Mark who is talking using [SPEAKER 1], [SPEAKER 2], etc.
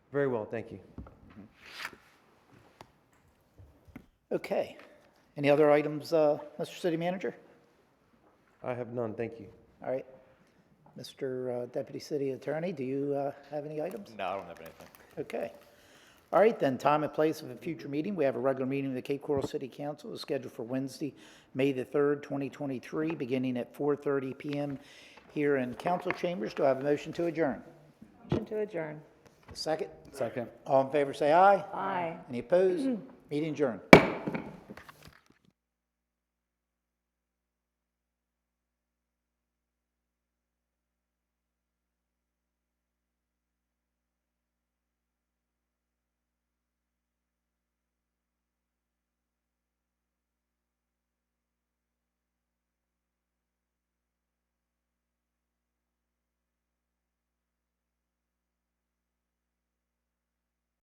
[SPEAKER 1] Very well, thank you.
[SPEAKER 2] Okay. Any other items, uh, Mr. City Manager?
[SPEAKER 1] I have none, thank you.
[SPEAKER 2] All right. Mr. uh, Deputy City Attorney, do you uh, have any items?
[SPEAKER 3] No, I don't have anything.
[SPEAKER 2] Okay. All right, then, time and place of a future meeting. We have a regular meeting of the Cape Coral City Council is scheduled for Wednesday, May the 3rd, 2023, beginning at 4:30 PM here in council chambers. Do I have a motion to adjourn?
[SPEAKER 4] Motion to adjourn.
[SPEAKER 2] Second?
[SPEAKER 5] Second.
[SPEAKER 2] All in favor, say aye.
[SPEAKER 4] Aye.
[SPEAKER 2] Any opposed? Meeting adjourned.